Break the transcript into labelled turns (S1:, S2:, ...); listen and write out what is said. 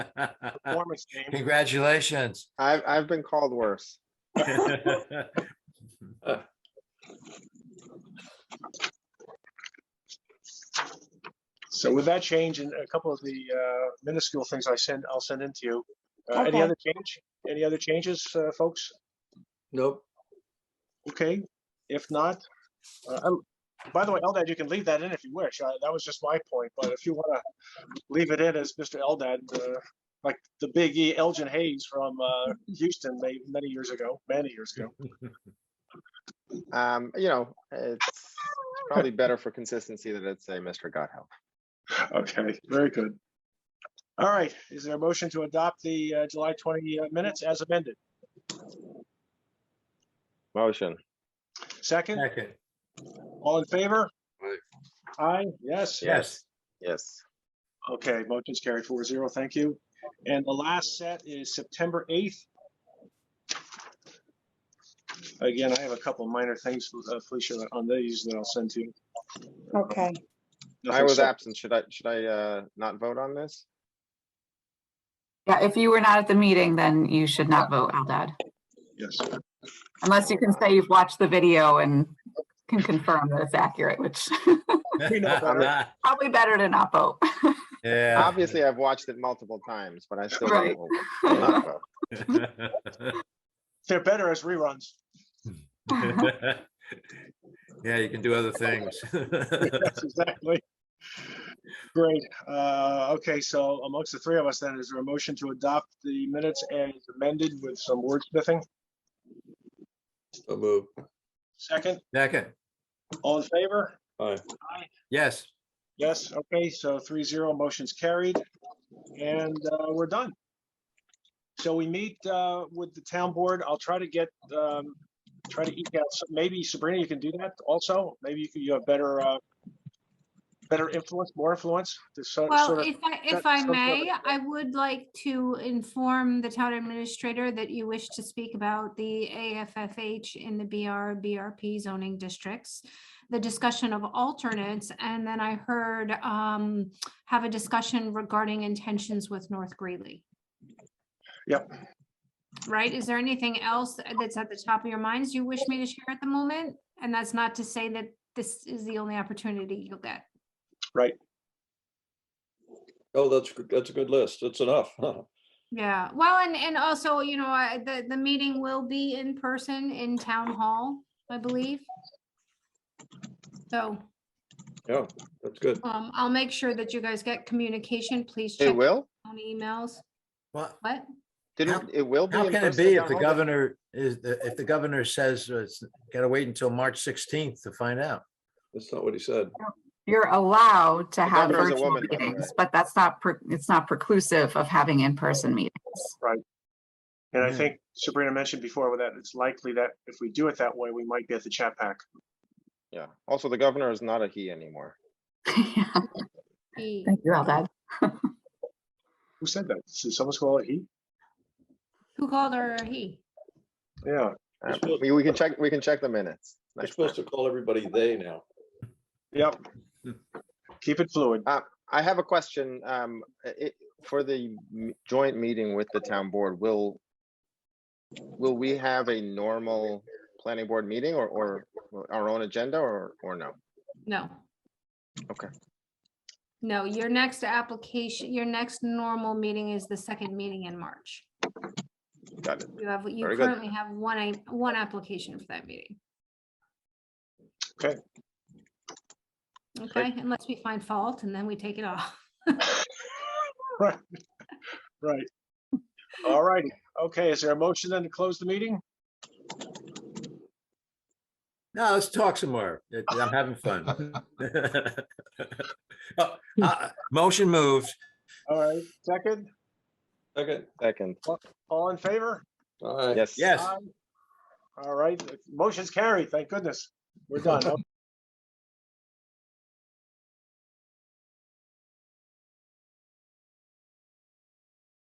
S1: Uh,
S2: performance game.
S3: Congratulations.
S2: I've, I've been called worse.
S1: So with that change and a couple of the uh, minuscule things I send, I'll send into you. Uh, Any
S4: Okay.
S1: other change? Any other changes, uh, folks?
S5: Nope.
S1: Okay, if not, uh, I'm- by the way, Eldad, you can leave that in if you wish. I- That was just my point, but if you want to leave it in as Mr. Eldad, uh, like the big E, Elgin Hayes from uh, Houston, ma- many years ago, many years ago.
S2: Um, you know, it's probably better for consistency that it's a Mr. Godhelp.
S1: Okay, very good. All right, is there a motion to adopt the uh, July 20 uh, minutes as amended?
S2: Motion.
S1: Second,
S3: Second,
S1: all in favor?
S5: Aye.
S1: Aye, yes?
S3: yes.
S2: Yes.
S1: Okay, motion's carried four zero, thank you. And the last set is September eighth. Again, I have a couple minor things, uh, Felicia, on these that I'll send to you.
S4: Okay,
S2: I
S1: Nothing
S2: was
S1: sep-
S2: absent. Should I, should I, uh, not vote on this?
S6: Yeah, if you were not at the meeting, then you should not vote, Eldad.
S1: Yes,
S6: Unless you can say you've watched the video and can confirm that it's accurate, which
S1: We know better.
S6: probably better to not vote.
S3: Yeah.
S2: Obviously, I've watched it multiple times, but I still
S6: Right.
S2: will not vote.
S1: they're better as reruns.
S3: Yeah, you can do other things.
S1: Yes, Exactly. Great, uh, okay, so amongst the three of us then, is there a motion to adopt the minutes as amended with some wordsmithing?
S5: So move.
S1: Second,
S3: Second,
S1: all in favor?
S5: Aye.
S3: yes.
S1: Yes, okay, so three zero, motion's carried, and uh, we're done. So we meet uh, with the town board, I'll try to get, um, try to eke out, some- maybe Sabrina, you can do that also, maybe you can, you have better, uh, better influence, more influence to so-
S7: Well,
S1: sort of,
S7: if I,
S1: got
S7: if I
S1: some sort of-
S7: may, I would like to inform the town administrator that you wish to speak about the AFFH in the BR, BRP zoning districts, the discussion of alternates, and then I heard um, have a discussion regarding intentions with North Greeley.
S1: Yep.
S7: Right? Is there anything else that's at the top of your minds you wish me to share at the moment? And that's not to say that this is the only opportunity you'll get.
S5: Oh, that's, good- that's a good list. That's enough. huh?
S7: Yeah, well, and, and also, you know, I, the, the meeting will be in person in town hall, I believe. So,
S5: Yeah, that's good.
S7: um, I'll make sure that you guys get communication. Please
S2: It
S7: check
S2: will?
S7: on emails.
S3: Well,
S7: What?
S2: Didn't, it will be.
S3: how
S2: in
S3: can it
S2: person
S3: be
S2: at
S3: if the
S2: town hall?
S3: governor is, if the governor says uh, it's gotta wait until March sixteenth to find out?
S5: That's not what he said.
S6: You're allowed to have
S2: governor is a
S6: virtual
S2: woman, by the way.
S6: meetings, but that's not, pre- it's not preclusive of having in-person meetings.
S1: and I
S3: Yeah.
S1: think Sabrina mentioned before with that, it's likely that if we do it that way, we might get the chat pack.
S2: Yeah. Also, the governor is not a he anymore.
S6: Yeah,
S7: E.
S6: Thank you, Eldad.
S1: Who said that? Did someone call it he?
S7: Who called her or he?
S1: Yeah,
S2: Um,
S5: supposed-
S2: We, we can check, we can check the minutes.
S5: We're
S2: next time.
S5: supposed to call everybody they now.
S1: yep. Keep it fluid.
S2: I have a question, um, i- i- for the m- joint meeting with the town board, will, will we have a normal planning board meeting or, or our own agenda or, or no?
S7: No.
S2: Okay.
S7: No, your next application, your next normal meeting is the second meeting in March.
S2: Got it.
S7: You have, you
S2: Very good.
S7: currently have one, a- one application for that meeting.
S1: Okay.
S7: Okay, unless we find fault and then we take it off.
S1: Right, right. All righty. Okay, is there a motion then to close the meeting?
S3: No, let's talk some more. It- I'm having fun. Oh, uh, Motion moved.
S1: All right, second,
S5: Okay,
S2: Second,
S1: all in favor?
S5: all right.
S2: yes.
S3: Yes.
S1: Aye. All right, motion's carried, thank goodness. We're done.